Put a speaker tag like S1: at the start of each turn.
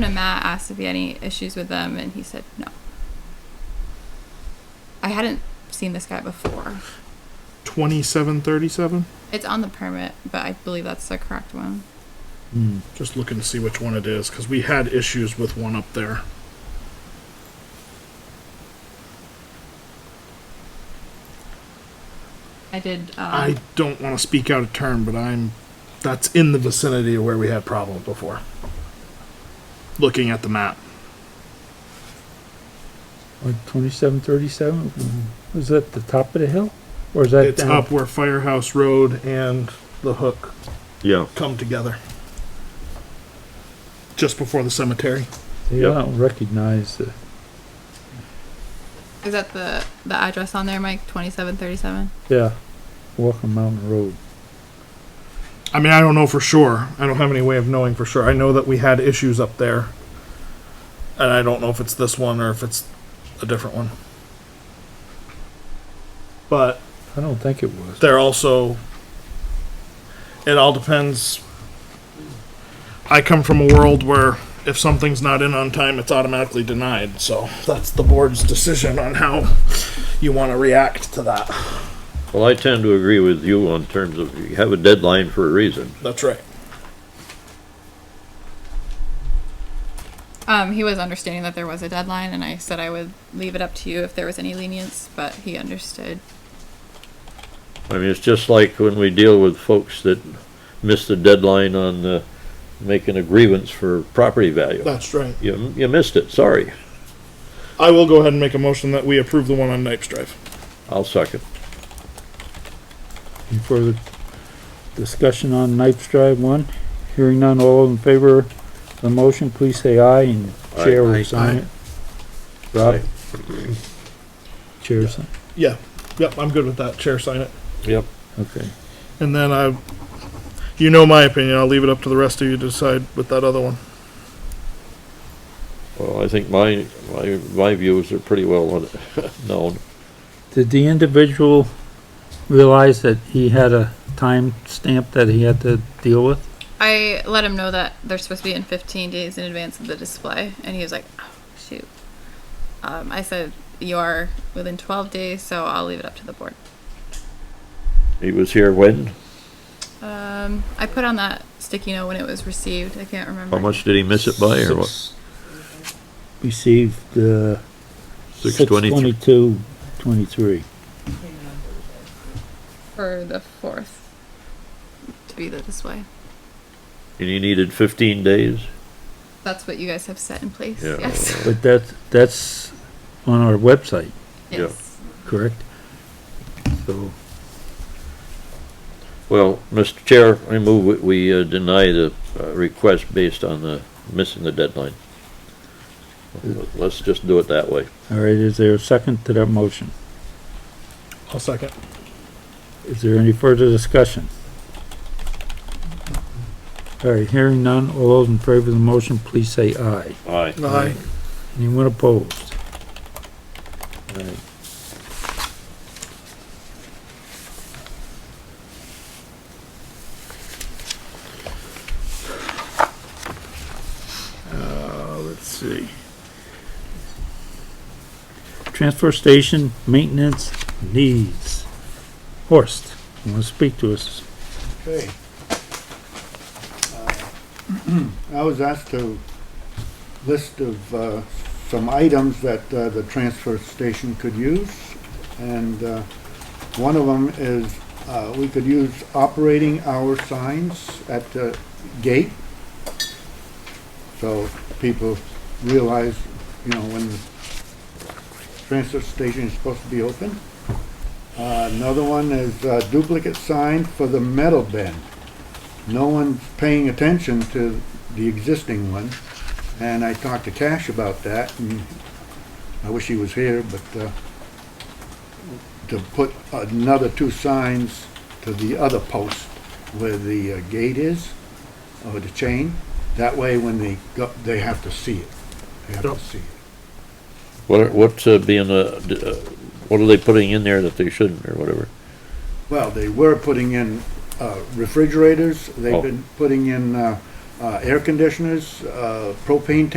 S1: them to Matt, asked if he had any issues with them, and he said no. I hadn't seen this guy before.
S2: 2737?
S1: It's on the permit, but I believe that's the correct one.
S2: Just looking to see which one it is, because we had issues with one up there.
S1: I did. Um,
S2: I don't want to speak out of turn, but I'm. That's in the vicinity of where we had problems before. Looking at the map.
S3: Like twenty-seven thirty-seven, is that the top of the hill? Or is that
S2: It's
S3: down?
S2: up where Firehouse Road and the hook
S4: Yeah.
S2: come together. Just before the cemetery.
S3: Yeah, I don't recognize the,
S1: Is that the the address on there, Mike? Twenty seven thirty seven.
S3: yeah, Walking Mountain Road.
S2: I mean, I don't know for sure. I don't have any way of knowing for sure. I know that we had issues up there. And I don't know if it's this one or if it's a different one. But
S3: I don't think it was.
S2: they're also it all depends i come from a world where if something's not in on time it's automatically denied so that's the board's decision on how you want to react to that
S4: Well, I tend to agree with you on terms of you have a deadline for a reason.
S2: that's right
S1: Um, he was understanding that there was a deadline, and I said I would leave it up to you if there was any lenience, but he understood.
S4: I mean, it's just like when we deal with folks that miss the deadline on, uh, making a grievance for property value.
S2: that's right
S4: You, you missed it, sorry.
S2: i will go ahead and make a motion that we approve the one on Nipes drive
S4: I'll second.
S3: Any further discussion on Nipes Drive one? Hearing none, all in favor of the motion, please say aye and chair
S4: Aye.
S3: will sign it. Rob? Chair sign,
S2: yeah yep i'm good with that chair sign it
S4: Yep.
S3: okay.
S2: and then i you know my opinion i'll leave it up to the rest of you to decide with that other one
S4: Well, I think my, my, my views are pretty well known.
S3: Did the individual realize that he had a time stamp that he had to deal with?
S1: I let him know that they're supposed to be in 15 days in advance of the display, and he was like, oh, shoot. Um, I said, you are within 12 days, so I'll leave it up to the board.
S4: He was here when?
S1: Um, I put on that sticky note when it was received. I can't remember.
S4: How much did he miss it by or what?
S3: Received, uh,
S4: Six
S3: six
S4: twenty-three.
S3: twenty-two, twenty-three.
S1: For the 4th to be the display.
S4: And he needed fifteen days?
S1: That's what you guys have set in place.
S4: Yeah.
S1: Yes.
S3: But that's, that's on our website,
S4: Yeah.
S1: yes.
S3: correct? So,
S4: Well, Mr. Chair, I move that we uh, deny the uh, request based on the missing the deadline. Let's just do it that way.
S3: all right, is there a second to that motion?
S2: i'll second
S3: Is there any further discussion? All right, hearing none, all those in favor of the motion, please say aye.
S4: Aye.
S2: aye
S3: Anyone opposed? All right.
S2: uh, let's see
S3: Transfer station maintenance needs. Horst, you want to speak to us?
S5: Okay. Uh, I was asked to list of uh, some items that uh, the transfer station could use. And uh, one of them is, uh, we could use operating hour signs at the gate. So people realize, you know, when the transfer station is supposed to be open. Uh, Another one is uh, duplicate sign for the metal bin. No one's paying attention to the existing one, and I talked to Cash about that, and I wish he was here, but uh, to put another two signs to the other post where the uh, gate is, or the chain, that way when they go, they have to see it. They have to
S2: Yep.
S5: see it.
S4: What, are- what's uh, being, uh, d- uh, what are they putting in there that they shouldn't or whatever?
S5: Well, they were putting in uh, refrigerators,
S4: Oh.
S5: they've been putting in uh, uh, air conditioners, uh, propane tank